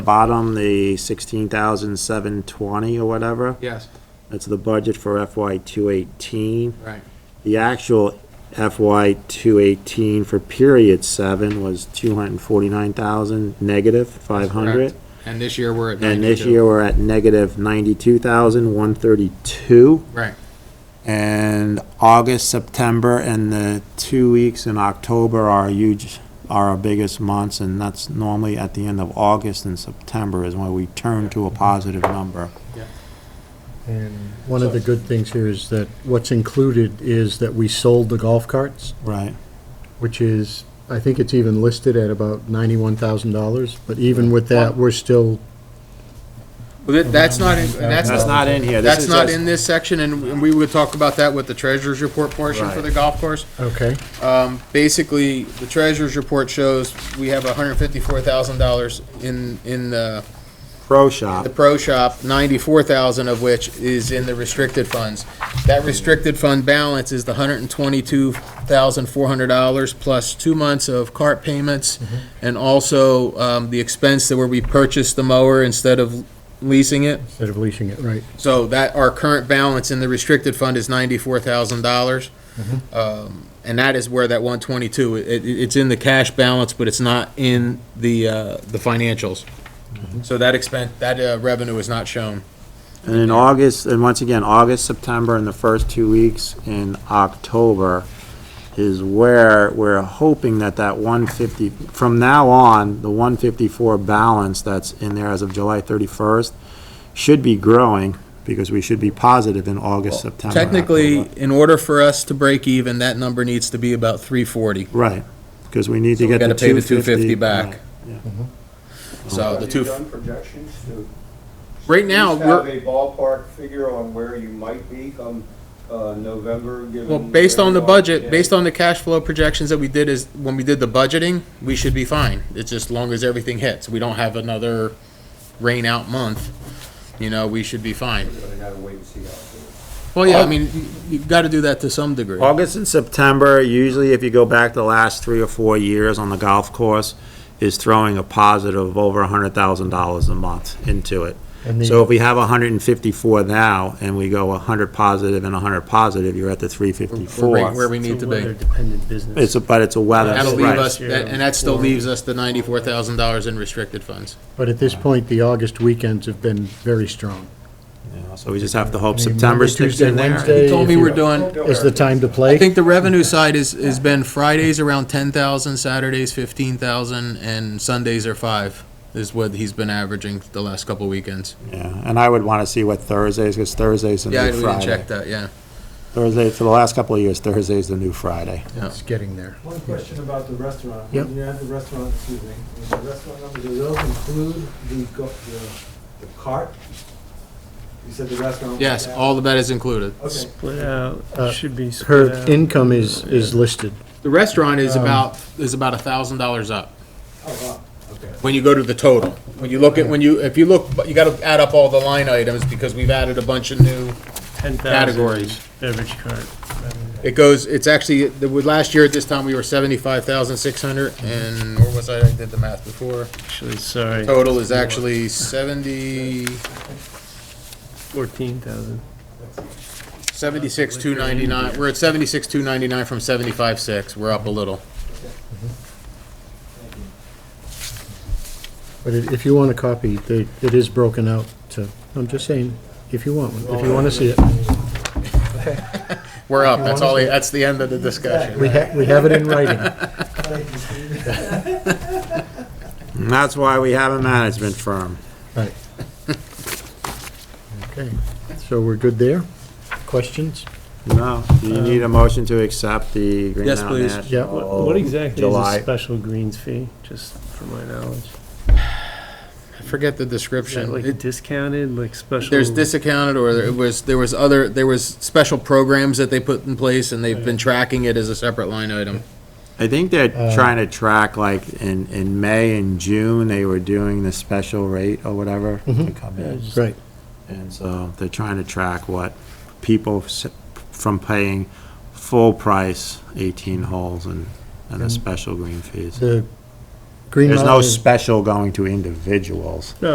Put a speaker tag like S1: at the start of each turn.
S1: bottom, the sixteen thousand seven twenty or whatever,
S2: Yes,
S1: that's the budget for FY two eighteen.
S2: right.
S1: The actual FY two eighteen for period seven was two hundred and forty-nine thousand, negative five hundred.
S2: And this year, we're at
S1: And this
S2: 92.
S1: year, we're at negative ninety-two thousand, one thirty-two.
S2: Right,
S1: And August, September, and the two weeks in October are huge, are our biggest months, and that's normally at the end of August and September is when we turn to a positive number.
S3: And one of the good things here is that what's included is that we sold the golf carts,
S1: Right.
S3: which is, I think it's even listed at about ninety-one thousand dollars, but even with that, we're still,
S2: Well, that- that's not, in- and that's,
S1: That's not in here. This
S2: that's
S1: is
S2: not
S1: just-
S2: in this section, and we would talk about that with the treasurer's report portion for
S1: Right.
S2: the golf course.
S3: okay,
S2: Um, basically, the treasurer's report shows we have hundred fifty-four thousand dollars in, in the,
S1: Pro
S2: the
S1: shop,
S2: pro shop, ninety-four thousand of which is in the restricted funds. That restricted fund balance is the hundred and twenty-two thousand four hundred dollars plus two months of cart payments and also, um, the expense that where we purchased the mower instead of leasing it.
S3: instead of leasing it, right?
S2: So that, our current balance in the restricted fund is ninety-four thousand dollars.
S1: Mm-hmm.
S2: Um, And that is where that one twenty-two, it, it- it's in the cash balance, but it's not in the, uh, the financials.
S1: Mm-hmm.
S2: So that expense, that uh, revenue is not shown.
S1: and in August, and once again, August, September, and the first two weeks in October is where we're hoping that that one fifty, from now on, the one fifty-four balance that's in there as of July thirty-first should be growing, because we should be positive in August, September. and
S2: Technically,
S1: October.
S2: in order for us to break even, that number needs to be about three forty.
S1: Right, because we need
S2: So
S1: to
S2: we
S1: get
S2: gotta
S1: the
S2: pay the
S1: two fifty.
S2: 250 back. So the
S4: Have
S2: two,
S4: you done projections to?
S2: Right now,
S4: At least Have a ballpark figure on where you might be come, uh, November, given.
S2: well, based on the
S4: where we are
S2: budget,
S4: today?
S2: based on the cash flow projections that we did is, when we did the budgeting, we should be fine. It's just long as everything hits. We don't have another rain out month, you know, we should be fine.
S4: But I gotta wait and see how it goes.
S2: Well, yeah, I mean, you- you've got to do that to some degree.
S1: August and September, usually if you go back the last three or four years on the golf course, is throwing a positive of over hundred thousand dollars a month into it.
S3: And
S1: So
S3: the,
S1: if we have hundred and fifty-four now, and we go hundred positive and hundred positive, you're at the three
S2: We're right Where
S1: fifty-four.
S2: we need to be.
S3: dependent business.
S1: It's, a- but it's a weather,
S2: That'll leave
S1: right,
S2: us, that- and that still leaves us the ninety-four thousand dollars in restricted funds.
S3: But at this point, the August weekends have been very strong.
S1: you know, so we just have to hope
S3: I mean, Monday,
S1: September sticks
S3: Tuesday,
S1: in there.
S3: Wednesday.
S2: You told me we're doing,
S3: Is the time to
S2: I
S3: play?
S2: think the revenue side is, has been Fridays around ten thousand, Saturdays fifteen thousand, and Sundays are five, is what he's been averaging the last couple weekends.
S1: Yeah, and I would wanna see what Thursdays, because Thursday's the
S2: Yeah, I
S1: new
S2: didn't
S1: Friday.
S2: check that, yeah.
S1: Thursday, for the last couple of years, Thursday's the new Friday.
S3: It's getting there.
S5: One question about the restaurant.
S3: Yep.
S5: When you add the restaurant, excuse me, when the restaurant numbers, do those include the, go- the, the cart? You said the restaurant. was
S2: Yes,
S5: added.
S2: all of that is included.
S5: Okay.
S6: Split out,
S3: Uh,
S6: it should be split
S3: Her
S6: out.
S3: income is, is listed.
S2: The restaurant is
S3: Um,
S2: about, is about a thousand dollars up.
S5: Oh, wow, okay.
S2: when you go to the total. When you look at, when you, if you look, but you gotta add up all the line items, because we've added a bunch of new,
S6: 10,000
S2: categories.
S6: Beverage cart.
S2: it goes, it's actually, the, with last year at this time, we were seventy-five thousand six hundred, and, where was I, I did the math before.
S6: Actually, sorry,
S2: Total is actually seventy,
S6: 14,000.
S2: seventy-six two ninety-nine, we're at seventy-six two ninety-nine from seventy-five six, we're up a little.
S3: But i- if you want a copy, they, it is broken out to, I'm just saying, if you want one, if you want to see it.
S2: We're up, that's all, that's the end of the discussion.
S3: We have, we have it in writing.
S5: Thank you, Steve.
S1: And that's why we have a management firm.
S3: Right. Okay, so we're good there? Questions?
S1: No, do you need a motion to accept the Green
S2: Yes,
S1: Mountain
S2: please.
S1: National?
S3: Yeah.
S6: What
S2: Oh,
S6: what exactly is
S1: July.
S6: a special greens fee, just for my knowledge?
S2: I Forget the
S6: Is that
S2: description. It-
S6: like discounted, like special?
S2: There's disaccounted, or there was, there was other, there was special programs that they put in place, and they've been tracking it as a separate line item.
S1: I think they're
S3: Uh,
S1: trying to track, like, in, in May and June, they were doing the special rate or whatever to
S3: Mhm.
S1: come in.
S3: Right.
S1: And so they're trying to track what people s- from paying full price, 18 holes and, and the
S3: And-
S1: special green fees.
S3: The Green
S1: There's no
S3: Mountain-
S1: special going to individuals.